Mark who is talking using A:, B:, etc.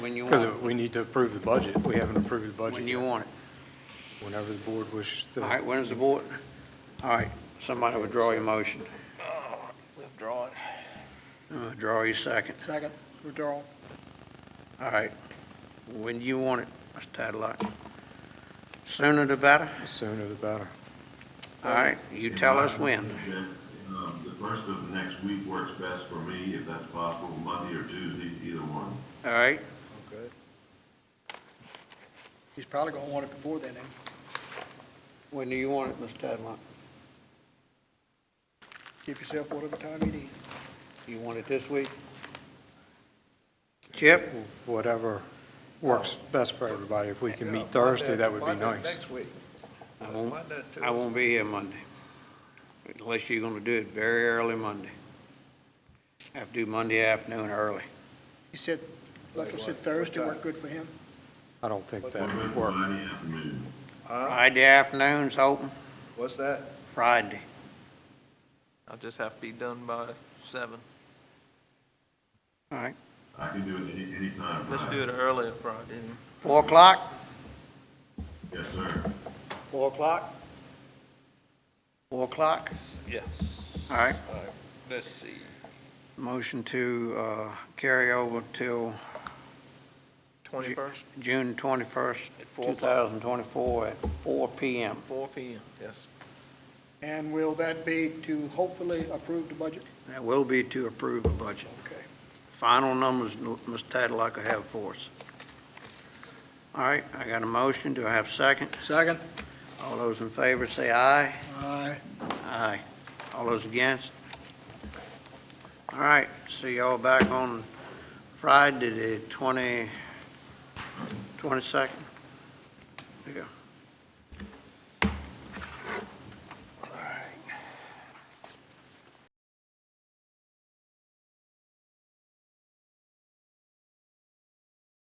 A: When you want
B: Because
A: it,
B: we need to approve the budget. We haven't approved the budget.
A: when you
B: yet.
A: want it.
B: Whenever the board wishes to.
A: All right, when is the board? All right, somebody withdraw your motion.
C: Oh, Withdraw it.
A: Uh, Draw your second.
C: Second, withdrawal.
A: All right, when you want it, Mr. Tadlock. Sooner the better.
B: The Sooner the better.
A: All right, you tell us when.
D: Um, The first of the next week works best for me, if that's possible, Monday or Tuesday, either one.
A: All right,
C: He's probably gonna want it before then, ain't
A: when do you want it, Mr. Tadlock?
C: he? Give yourself whatever time you need.
A: You want it this week? Chip?
B: Whatever works best for everybody. If we can meet Thursday, that would be nice.
E: Next week.
A: I won't, I won't be here Monday, unless you're gonna do it very early Monday. Have to do Monday afternoon early.
C: He said, like I said, Thursday worked good for him.
B: I don't think that
D: What
B: would
D: about
B: work.
D: Friday afternoon?
E: Huh?
A: Friday afternoon's open,
E: What's that?
A: Friday.
F: I'll just have to be done by seven.
A: All right,
D: I can do it any, anytime.
F: Let's do it earlier Friday.
A: four o'clock?
D: Yes, sir.
A: Four o'clock? Four o'clock?
F: Yes.
A: All right,
F: Let's see.
A: motion to, uh, carry over till
F: Twenty-first,
A: June twenty-first,
F: At four
A: two
F: o'clock.
A: thousand twenty-four at four P M.
F: four P M. Yes.
C: And will that be to hopefully approve the budget?
A: That will be to approve a budget.
C: Okay.
A: Final numbers, Mr. Tadlock will have for us. All right, I got a motion. Do I have a second?
C: Second.
A: All those in favor say aye.
C: Aye.
A: Aye. All those against? All right, see y'all back on Friday, the 20, 22nd? Yeah.